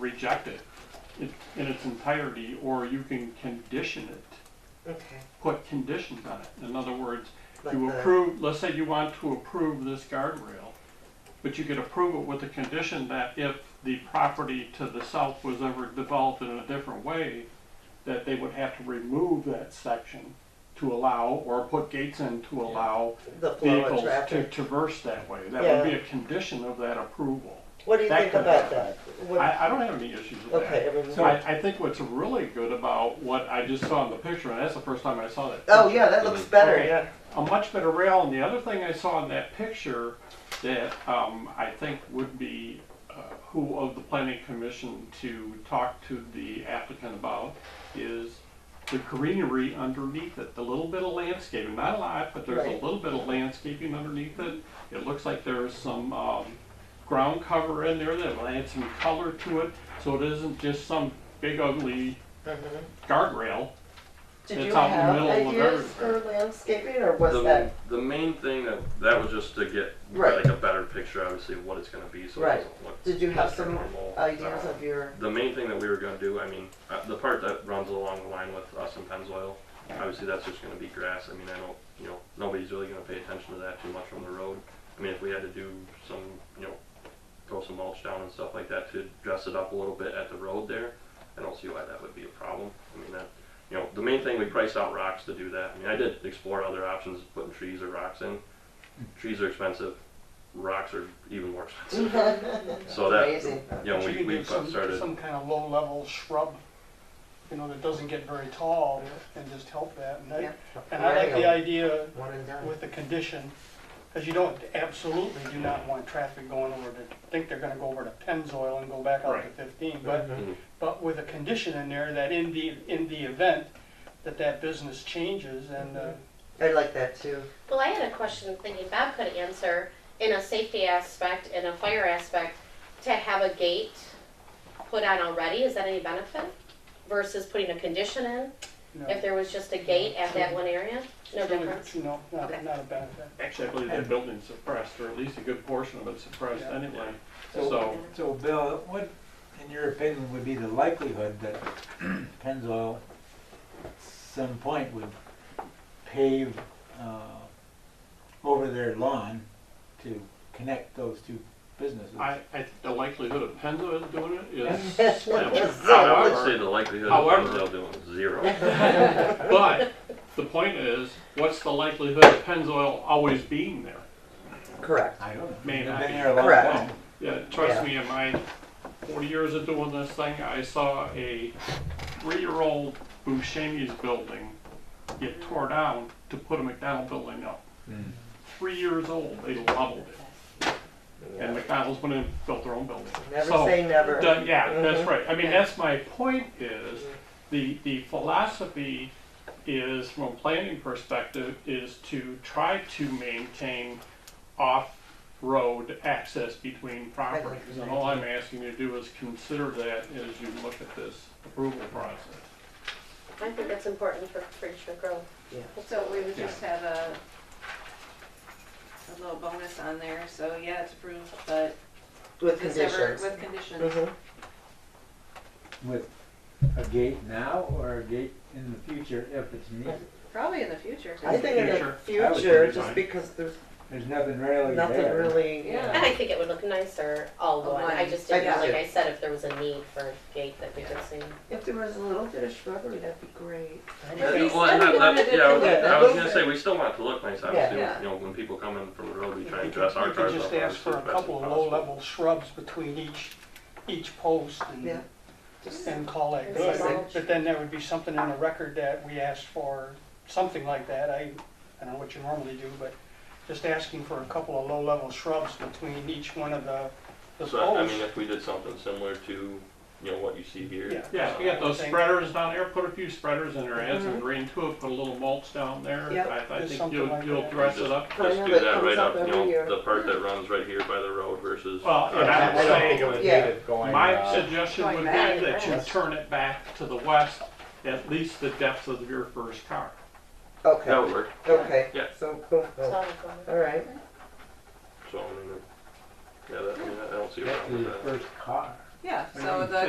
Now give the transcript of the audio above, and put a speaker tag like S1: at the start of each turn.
S1: reject it in in its entirety, or you can condition it,
S2: Okay.
S1: put conditions on it. In other words,
S2: Like
S1: you
S2: the-
S1: approve, let's say you want to approve this guardrail, but you could approve it with the condition that if the property to the south was ever developed in a different way, that they would have to remove that section to allow, or put gates in to allow
S2: The flow of
S1: vehicles to
S2: traffic.
S1: traverse that way. That would be
S2: Yeah.
S1: a condition of that approval.
S2: What do you
S1: that
S2: think
S1: could
S2: about
S1: happen.
S2: that? What-
S1: I, I don't have any issues with
S2: Okay,
S1: that.
S2: I mean,
S1: So I, I think what's really good about what I just saw in the picture, and that's the first time I saw that.
S2: oh,
S1: picture,
S2: yeah, that looks better,
S1: Okay.
S2: yeah.
S1: a much better rail. And the other thing I saw in that picture that um, I think would be uh, who of the planning commission to talk to the applicant about is the greenery underneath it, the little bit of landscaping, not a lot, but there's a
S2: Right.
S1: little bit of landscaping underneath it. It looks like there's some um, ground cover in there that will add some color to it, so it isn't just some big ugly
S2: Mhm.
S1: guardrail.
S2: Did
S1: It's
S2: you
S1: out in the
S2: have
S1: middle of
S2: ideas for
S1: everywhere.
S2: landscaping, or was
S3: the,
S2: that,
S3: the main thing that that was just to get
S2: Right.
S3: like a better picture, obviously, of what it's going to be, so
S2: Right.
S3: it doesn't look.
S2: did you have
S3: just a
S2: some
S3: normal,
S2: ideas
S3: uh,
S2: of your,
S3: The main thing that we were going to do, I mean, uh, the part that runs along the line with us and Pennzoil, obviously that's just going to be grass. I mean, I don't, you know, nobody's really going to pay attention to that too much on the road. I mean, if we had to do some, you know, throw some mulch down and stuff like that to dress it up a little bit at the road there, I don't see why that would be a problem. I mean, that, you know, the main thing, we priced out rocks to do that. I mean, I did explore other options, putting trees or rocks in. Trees are expensive, rocks are even more expensive. So that,
S2: amazing?
S3: you know,
S4: But
S3: we,
S4: you
S3: we
S4: can do some,
S3: started.
S4: some kind of low-level shrub, you know, that doesn't get very tall and just help that. And
S2: Yeah.
S4: I, and I like the
S2: Perennial.
S4: idea
S2: One and done.
S4: with the condition, because you don't, absolutely do not want traffic going over to, think they're gonna go over to Pennzoil and go back out to
S1: Right.
S4: fifteen. But,
S3: Mhm.
S4: but with a condition in there that in the, in the event that that business changes and, uh,
S2: I like that too.
S5: Well, I had a question I'm thinking Bob could answer in a safety aspect, in a fire aspect, to have a gate put on already, is that any benefit? Versus putting a condition in,
S4: you know,
S5: if there was just a gate at that one area, no
S4: it's really,
S5: difference?
S4: You know,
S5: Okay.
S4: not, not a benefit.
S1: Actually, I believe that building's suppressed, or at least a good portion of it's suppressed
S4: Yeah.
S1: anyway.
S6: So-
S1: So,
S6: So Bill, what, in your opinion, would be the likelihood that Pennzoil at some point would pave uh, over their lawn to connect those two businesses?
S1: I, I, think the likelihood of Pennzoil doing it is slim.
S3: I
S2: Yes.
S3: would say the likelihood
S1: However-
S3: of Pennzoil doing it is zero.
S1: But the point is, what's the likelihood of Pennzoil always being there?
S2: Correct.
S6: I don't know.
S1: May
S6: They've
S1: not
S6: been
S1: be.
S6: there a long
S2: Correct.
S6: time.
S1: Yeah, trust
S2: Yeah.
S1: me, in my forty years of doing this thing, I saw a three-year-old Buscemi's building get tore down to put a McDonald building up.
S2: Hmm.
S1: Three years old, they leveled it. And McDonald's went in and built their own building.
S2: Never
S1: So,
S2: say never.
S1: Done- yeah, that's
S2: Mhm.
S1: right. I mean, that's my point is, the, the philosophy is, from a planning perspective, is to try to maintain off-road access between properties. And all I'm asking you to do is consider that as you look at this approval process.
S5: I think that's important for future growth.
S7: So we would just have a, a little bonus on there, so yeah, it's approved, but
S2: With
S7: it's never,
S2: conditions.
S7: with conditions.
S2: Mhm.
S1: Mm-hmm.
S6: With a gate now or a gate in the future if it's needed?
S7: Probably in the future.
S2: I think in the
S1: Future. Oh,
S6: I would
S2: future,
S1: think
S2: just
S1: fine.
S2: because there's
S6: There's nothing really there.
S2: nothing really.
S7: Yeah.
S5: And I think it would look nicer all
S7: Oh,
S5: one,
S7: one.
S5: I just
S2: I
S5: didn't, know,
S2: do
S5: like
S2: too.
S5: I said, if there was a need for a gate that we could see.
S2: If there was a little bit of shrubbery, that'd be great.
S3: Yeah,
S7: we
S3: well, and
S7: said
S3: that-
S7: we wanted
S3: that-
S7: it
S3: yeah, I
S7: to
S3: was-
S2: look
S3: I was gonna
S2: nice.
S3: say, we still want it to look nice, obviously,
S7: Yeah.
S3: you know, when people come in from the road, we try
S4: You
S3: and
S4: could-
S3: dress our
S4: you could
S3: cars up.
S4: just ask for a
S3: obviously, as
S4: couple of
S3: best as possible.
S4: low-level shrubs between each, each post
S2: Yeah.
S4: and, and call that
S5: It's
S4: good.
S2: like-
S4: But then there would be something in the record that we asked for, something like that. I, I don't know what you normally do, but just asking for a couple of low-level shrubs between each one of the, the
S3: So, I- I mean,
S4: posts.
S3: if we did something similar to, you know, what you see here. um,
S4: Yeah.
S1: Yeah, we got those spreaders down there, put a few spreaders in there, add some green to it, put a little mulch down there.
S2: Yep.
S1: I- I
S4: Just
S1: think
S4: something
S1: you'll,
S4: like
S1: you'll
S4: that.
S1: dress it up.
S2: I
S3: Just
S2: know
S3: do
S2: that
S3: that
S2: comes
S3: right
S2: up
S3: up, you
S2: every year.
S3: know, the part that runs right here by the road versus.
S1: Well, and I would say.
S2: Yeah.
S1: My suggestion would be
S7: going back,
S1: that you
S7: yes.
S1: turn it back to the west, at least the depth of your first car.
S3: That
S2: Okay,
S3: would work,
S2: okay.
S3: Yeah.
S2: So, boom,
S5: So
S2: boom.
S5: I would go with-
S2: All right.
S3: so, I mean, yeah, that, I mean, I don't see a
S6: That's
S3: problem with
S6: your
S3: that.
S6: first car.
S7: Yeah, so the